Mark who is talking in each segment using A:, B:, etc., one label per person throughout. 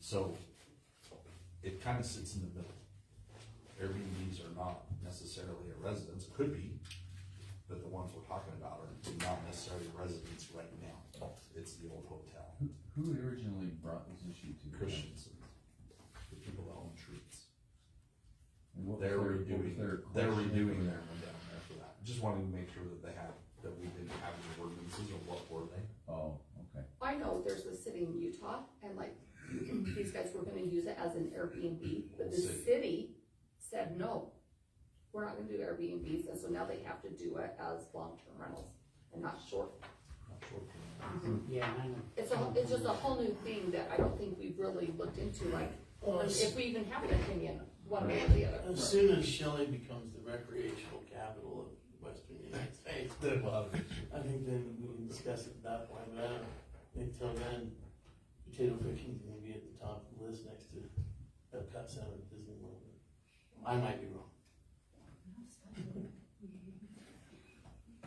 A: So it kind of sits in the middle. Airbnbs are not necessarily a residence, could be, but the ones we're talking about are not necessarily residents right now. It's the old hotel,
B: Who, who originally brought this issue to?
A: Christensen, the people that own trees.
B: And what was
A: They're
B: their- what was
A: redoing,
B: their
A: they're
B: question?
A: redoing their one down there for that. Just wanted to make sure that they had, that we didn't have any ordinances or what were they?
B: Oh, okay.
C: I know there's a city in Utah and like, these guys were gonna use it as an Airbnb, but the
A: City.
C: city said, no. We're not gonna do Airbnbs, and so now they have to do it as long-term rentals and not short.
A: Not sure.
D: Yeah, I know.
C: It's a, it's just a whole new thing that I don't think we've really looked into, like,
E: Well, as,
C: if we even have an opinion, one way or the other.
E: as soon as Shelley becomes the recreational capital of western United States, then, I think then we can discuss it at that point, but I don't, think till then, potato picking's gonna be at the top of the list next to Epcot Center at Disney World. I might be wrong.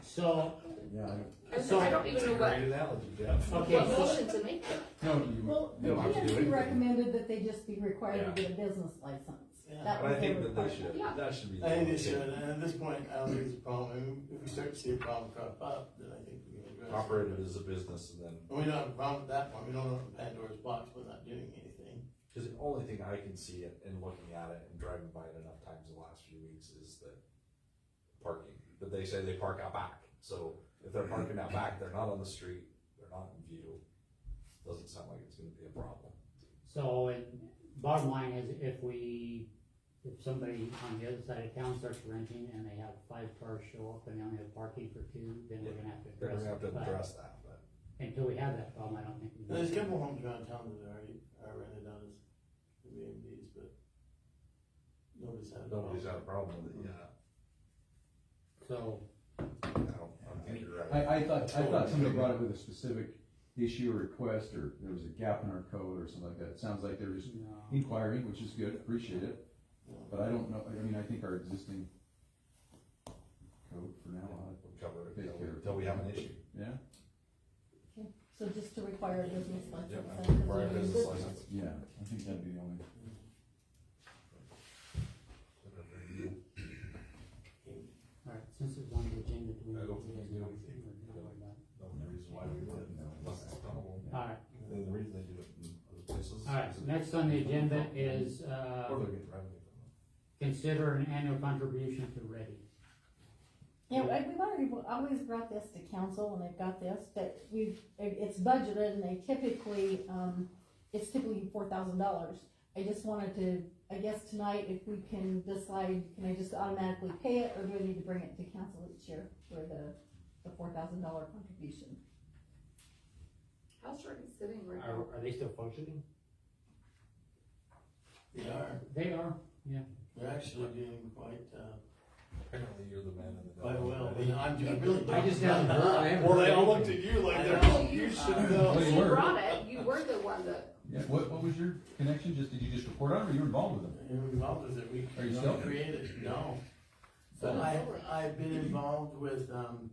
D: So,
B: Yeah.
C: I don't, I don't even know what,
A: analogy, Jeff.
D: okay,
C: what
D: so,
C: motion to make.
B: I- No, you,
F: Well,
A: No, I would do
F: PNC
A: it.
F: recommended that they just be required to get a business license.
E: Yeah.
F: That
A: But I
F: was their
A: think that they
F: requirement.
A: should, that should be.
E: I think they should,
A: the
E: and at this point, I don't think it's a problem, and if we start to see a problem crop up, then I think we can address it.
A: Operated as a business and then,
E: And we don't have a problem at that point, we don't open Pandora's box, we're not doing anything.
A: cause the only thing I can see it and looking at it and driving by it enough times the last few weeks is the parking. But they say they park out back, so if they're parking out back, they're not on the street, they're not in view. Doesn't sound like it's gonna be a problem.
D: so, and bottom line is if we, if somebody on the other side of town starts renting and they have five cars show up and they only have parking for two, then we're gonna have to
A: They're
D: address
A: gonna have to
D: it. But
A: address that, but
D: until we have that problem, I don't think. we
E: Now, There's a
D: can.
E: couple homes around town that are already, are rented out as Airbnbs, but nobody's had a problem.
A: nobody's had a problem with it, yeah.
D: So,
A: I don't, I don't think you're
B: I,
A: right.
B: I thought, I thought somebody brought it with a specific issue or request, or there was a gap in our code or something like that. It sounds like they're just
D: no,
B: inquiring, which is good, appreciate it, but I don't know, I mean, I think our existing code for now, uh,
A: We'll cover it
B: Take
A: until,
B: care.
A: until we have an issue.
B: yeah,
F: So just to require a business
A: Yeah,
F: license.
A: man.
F: that's what
A: Require a
F: we
A: business
F: did.
A: license.
B: yeah, I think that'd be the only.
D: alright, since it's on the agenda, do we?
A: I don't think we do anything. No, the reason why we did it, no, unless it's tunnel.
D: Alright,
A: And the reason they do it in other places. is
D: alright,
A: it-
D: next on the agenda is, uh.
A: Or they're getting revenue from it.
D: Consider an annual contribution to Ready.
F: Yeah, we- we've already, always brought this to council when they've got this, but we've, it- it's budgeted and they typically, um, it's typically four thousand dollars. I just wanted to, I guess tonight, if we can decide, can I just automatically pay it or do I need to bring it to council each year for the, the four thousand dollar contribution?
C: How's Jordan sitting right
G: Are,
C: now?
G: are they still functioning?
E: They are,
D: They are,
E: they're actually doing quite, uh,
A: Apparently you're the man in the.
E: quite
A: middle.
E: well, but I'm, I really don't.
D: I just haven't heard, I haven't
E: Well,
D: heard
E: they all looked
D: anything.
E: at you like
D: I
E: they're,
D: know.
E: you should know.
B: They
C: uh, You
B: were.
C: brought it, you were the one that,
B: Yeah, what, what was your connection, just, did you just report on it, or you were involved with them?
E: You're involved with it, we
B: Are you still?
E: created, no. But
C: Oh.
E: I, I've been involved with, um,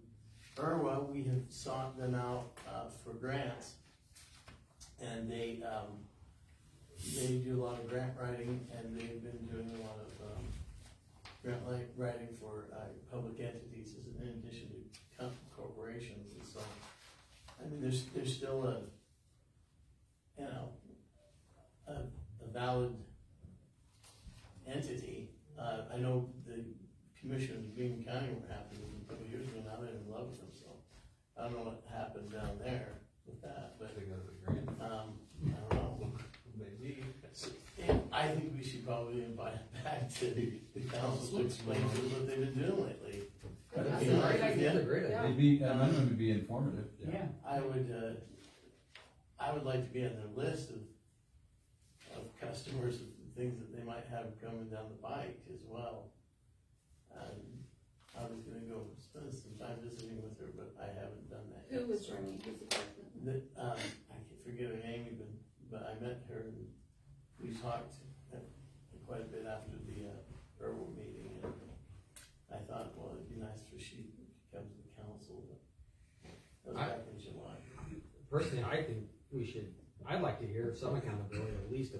E: Irwa, we have sought them out, uh, for grants. And they, um, they do a lot of grant writing and they've been doing a lot of, um, grant li- writing for, uh, public entities as in addition to co- corporations and so. I mean, there's, there's still a, you know, a, a valid entity. Uh, I know the commissioners of Green County were happy with them a couple of years ago, now they're in love with them, so. I don't know what happened down there with
A: I
E: that, but,
A: think that's a great,
E: um, I don't know.
A: maybe.
E: So, yeah, I think we should probably invite them back to the council to explain to them what they've been doing lately.
C: I
B: Okay.
C: that's a great idea.
G: a great
C: Yeah.
B: It'd be, uh, at minimum, it'd be informative.
D: yeah.
E: I would, uh, I would like to be on their list of, of customers, and things that they might have coming down the pike as well. Um, I was gonna go spend some time visiting with her, but I haven't done that yet.
C: who was running, who's the president?
E: The, um, I can forget her name even, but I met her and we talked uh, quite a bit after the, uh, herbal meeting and I thought, well, it'd be nice for she to come to the council, but that was
G: I-
E: back in July.
G: Personally, I think we should, I'd like to hear some accountability, at least